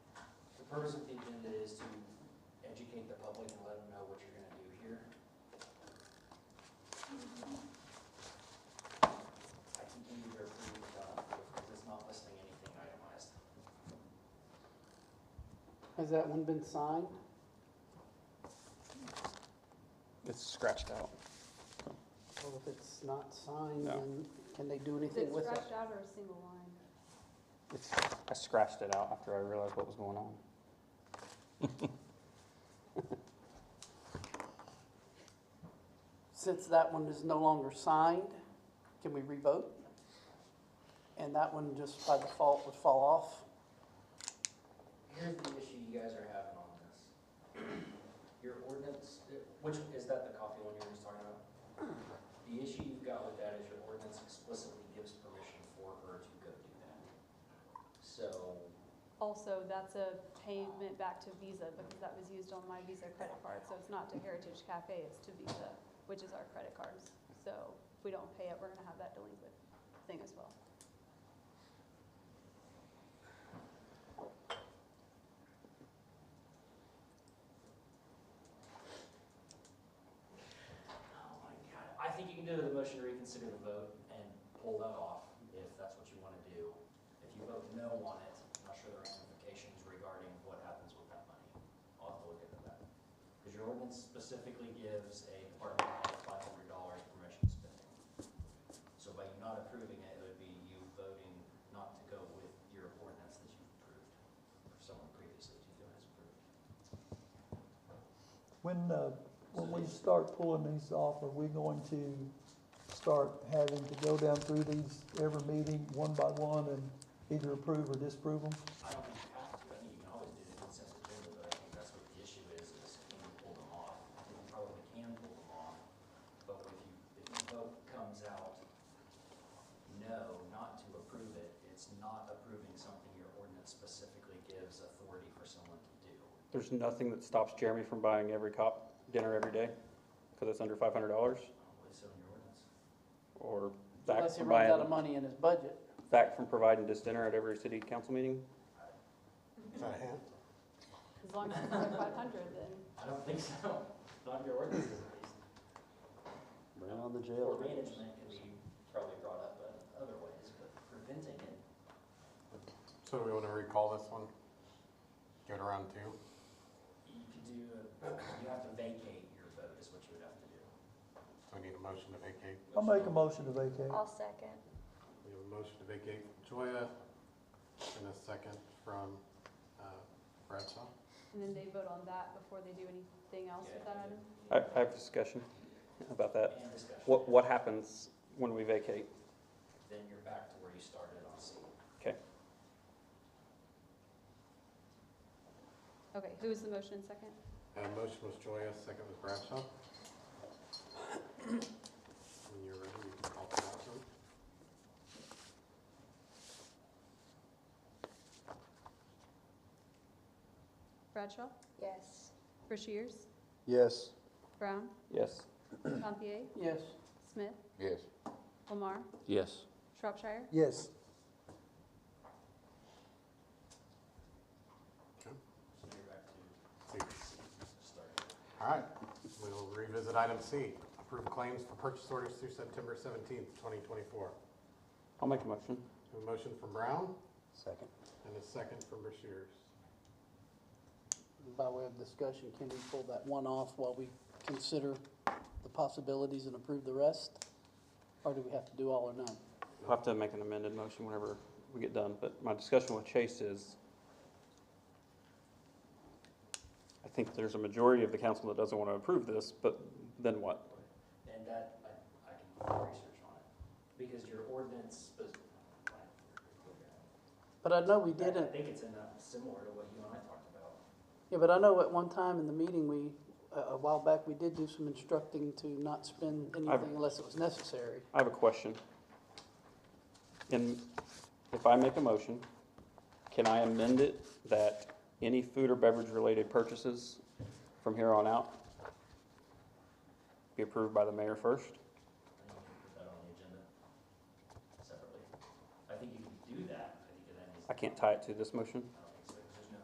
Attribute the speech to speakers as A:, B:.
A: purpose of the agenda is to educate the public and let them know what you're gonna do here. I can either approve, uh, because it's not listing anything itemized.
B: Has that one been signed?
C: It's scratched out.
B: Well, if it's not signed,
C: No.
B: then can they do
D: Is it
B: anything with it?
D: scratched out or a single line?
C: It's, I scratched it out after I realized what was going on.
B: Since that one is no longer signed, can we revote? And that one just by default would fall off?
A: Here's the issue you guys are having on this. Your ordinance, which, is that the coffee one you were just talking about? The issue you've got with that is your ordinance explicitly gives permission for her to go do that. So,
D: Also, that's a payment back to Visa because that was used on my Visa credit card. So it's not to Heritage Cafe, it's to Visa, which is our credit cards. So if we don't pay it, we're gonna have that delinquent thing as well.
A: oh my god, I think you can do the motion to reconsider the vote and pull that off if that's what you wanna do. If you vote no on it, I'm not sure the ramifications regarding what happens with that money. I'll have to look into that. Because your ordinance specifically gives a department head five hundred dollars permission spending. So by you not approving it, it would be you voting not to go with your ordinance that you've approved, or someone previously to you has approved.
E: When, uh, when we start pulling these off, are we going to start having to go down through these every meeting, one by one, and either approve or disapprove them?
A: I don't think you have to, I think you can always do the consent agenda, but I think that's what the issue is, is can you pull them off? I think You probably can pull them off, but if you, if the vote comes out, no, not to approve it, it's not approving something your ordinance specifically gives authority for someone to do.
C: There's nothing that stops Jeremy from buying every cop dinner every day because it's under five hundred dollars,
A: I don't believe so in your ordinance.
C: or Zach
B: Unless he
C: from
B: runs out of
C: buying,
B: money in his budget.
C: Zach from providing this dinner at every city council meeting.
D: As long as it's under five hundred, then
A: I don't think so, not in your ordinances at least.
C: Ran on the
A: Or management can be probably brought up in other ways, but preventing it,
F: So do we want to recall this one? Go to round two?
A: you could do, a- you have to vacate your vote is what you would have to do.
F: So we need a motion to vacate.
E: I'll make a motion to vacate.
G: I'll second.
F: We have a motion to vacate from Joya and a second from uh, Bradshaw.
D: And then they vote on that before they do anything else with that item?
C: I, I have a discussion about that.
A: And discussion.
C: What, what happens when we vacate?
A: Then you're back to where you started on C.
D: Okay, who was the motion and second?
F: Uh, motion was Joya, second was Bradshaw. When you're ready, you can call for that one.
D: Bradshaw?
G: Yes.
D: Rushiers?
H: Yes.
D: Brown?
C: Yes.
D: Gantier?
B: Yes.
D: Smith?
H: Yes.
D: Lamar?
H: Yes.
D: Shropshire?
E: Yes.
A: So you're back to
F: See.
A: start.
F: All right, we'll revisit item C, approve claims for purchase orders through September seventeenth, twenty twenty-four.
C: I'll make a motion.
F: A motion from Brown
C: Second.
F: and a second from Rushiers.
B: By way of discussion, can we pull that one off while we consider the possibilities and approve the rest? Or do we have to do all or none?
C: We'll have to make an amended motion whenever we get done, but my discussion with Chase is, I think there's a majority of the council that doesn't want to approve this, but then what?
A: And that, I, I can do research on it, because your ordinance was.
B: But I know we
A: I
B: didn't,
A: think it's in that, similar to what you and I talked about.
B: yeah, but I know at one time in the meeting, we, a a while back, we did do some instructing to not spend anything unless it was necessary.
C: I have a question. And if I make a motion, can I amend it that any food or beverage-related purchases from here on out be approved by the mayor first?
A: I think you can put that on the agenda separately. I think you can do that, I think that needs.
C: I can't tie it to this motion.
A: I